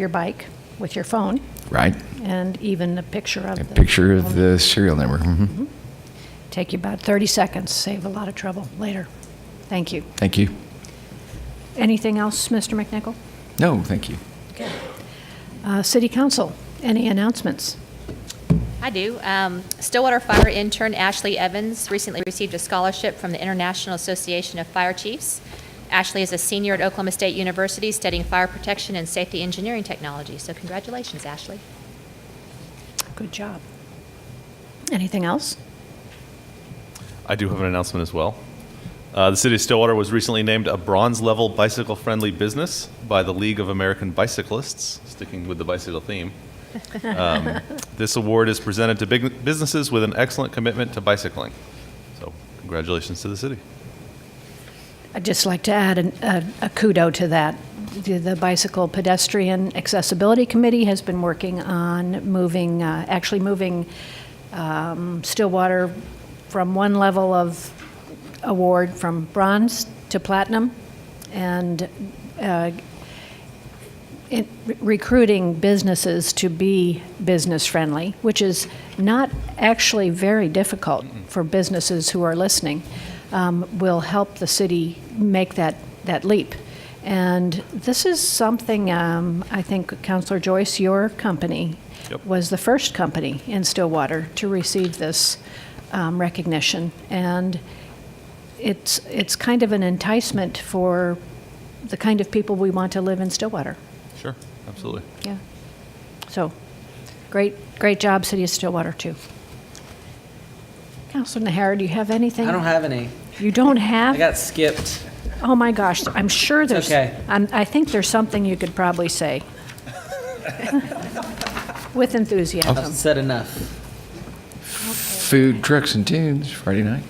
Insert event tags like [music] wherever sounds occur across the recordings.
your bike with your phone Right. and even a picture of A the Mm-hmm. picture of the serial number. Mhm. Take you about 30 seconds, save a lot of trouble later. Thank you. Thank you. Anything else, Mr. McNichol? No, thank you. Uh, City Council, any announcements? I do. Um, Stillwater Fire intern Ashley Evans recently received a scholarship from the International Association of Fire Chiefs. Ashley is a senior at Oklahoma State University studying fire protection and safety engineering technology. So congratulations, Ashley. Good job. Anything else? I do have an announcement as well. Uh, the city of Stillwater was recently named a bronze level bicycle friendly business by the League of American Bicyclists, sticking with the bicycle theme. Um, this award is presented to big businesses with an excellent commitment to bicycling. So, congratulations to the city. I'd just like to add an- a a kudo to that. The the Bicycle Pedestrian Accessibility Committee has been working on moving, uh, actually moving um, Stillwater from one level of award from bronze to platinum, and uh, in- recruiting businesses to be business-friendly, which is not actually very difficult for businesses who are listening, um, will help the city make that, that leap. And this is something, um, I think, Counselor Joyce, your company Yep. was the first company in Stillwater to receive this um, recognition. And it's, it's kind of an enticement for the kind of people we want to live in Stillwater. Sure, absolutely. Yeah. So, great, great job, City of Stillwater, too. Counselor Nahara, do you have anything? I don't have any. You don't I have? got skipped. Oh, my gosh, I'm sure there's. okay. I'm, I think there's something you could probably [laughs] say. With enthusiasm. I've said enough. Food trucks and tunes Friday night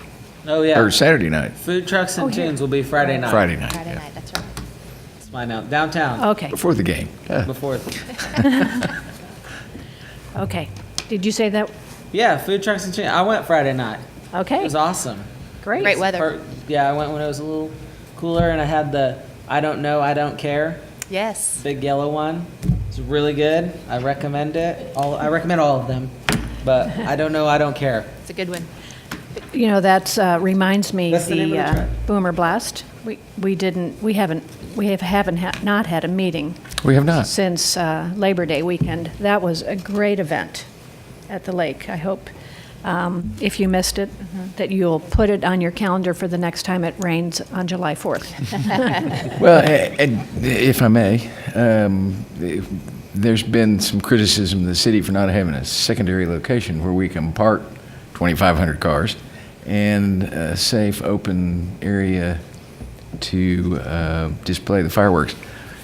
Oh yeah. or Saturday night. Food trucks and Oh, yeah. tunes will be Friday night. Friday night. Friday yeah. night, that's right. That's my now downtown Okay, Before the game. Yeah. before. okay. Did you say that? Yeah, food trucks and tunes. I went Friday night. It Okay, was awesome. great. Great weather. Or- yeah, I went when it was a little cooler, and I had the I don't know, I don't care Yes. big yellow one. It's really good. I recommend it. All I recommend all of them, but I don't know, I don't care. It's a good one. You know, that uh, reminds me, That's the name the of the uh, track. Boomer Blast, we, we didn't, we haven't, we have- haven't, ha- not had a meeting We have not. since uh, Labor Day weekend. That was a great event at the lake. I hope, um, if you missed it, Mm-hmm. that you'll put it on your calendar for the next time it rains on July 4th. Well, a- and if I may, um, if- there's been some criticism of the city for not having a secondary location where we can park 2,500 cars and a safe, open area to uh, display the fireworks.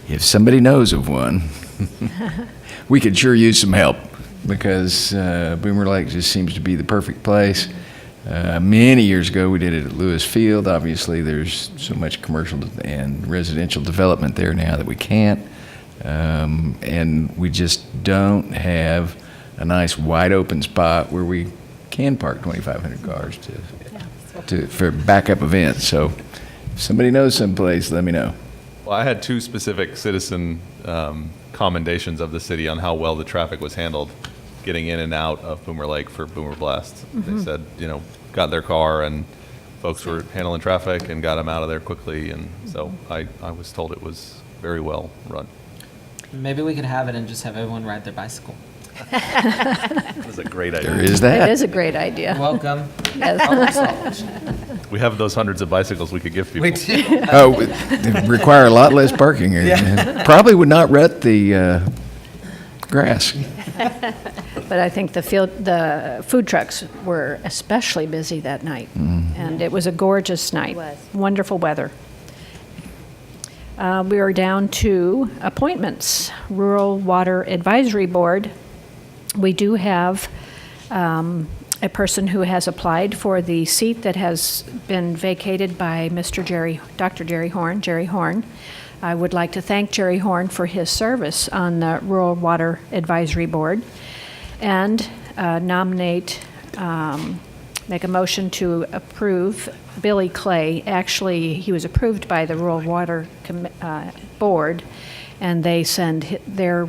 If somebody knows of one, [laughs] we could sure use some help because uh, Boomer Lake just seems to be the perfect place. Uh, many years ago, we did it at Lewis Field. Obviously, there's so much commercial and residential development there now that we can't. Um, and we just don't have a nice wide open spot where we can park 2,500 cars to, to, for backup events. So if somebody knows someplace, let me know. Well, I had two specific citizen um, commendations of the city on how well the traffic was handled getting in and out of Boomer Lake for Boomer Blast. They said, you know, got in their car and folks were handling traffic and got them out of there quickly. And so I, I was told it was very well run. Maybe we could have it and just have everyone ride their bicycle. It was a great There idea. is It that. is a great idea. Welcome. [laughs] Oh, Yes. We have those hundreds of bicycles we could give people. [laughs] Oh, w- they require a lot less parking area. Probably would not rut the uh, grass. But I think the field, the food trucks were especially busy that night. And it was a gorgeous night. It was. Wonderful weather. Uh, We are down to appointments. Rural Water Advisory Board. We do have um, a person who has applied for the seat that has been vacated by Mr. Jerry, Dr. Jerry Horn, Jerry Horn. I would like to thank Jerry Horn for his service on the Rural Water Advisory Board and uh, nominate, um, make a motion to approve Billy Clay. Actually, he was approved by the Rural Water Commi- uh, Board, and they send hi- their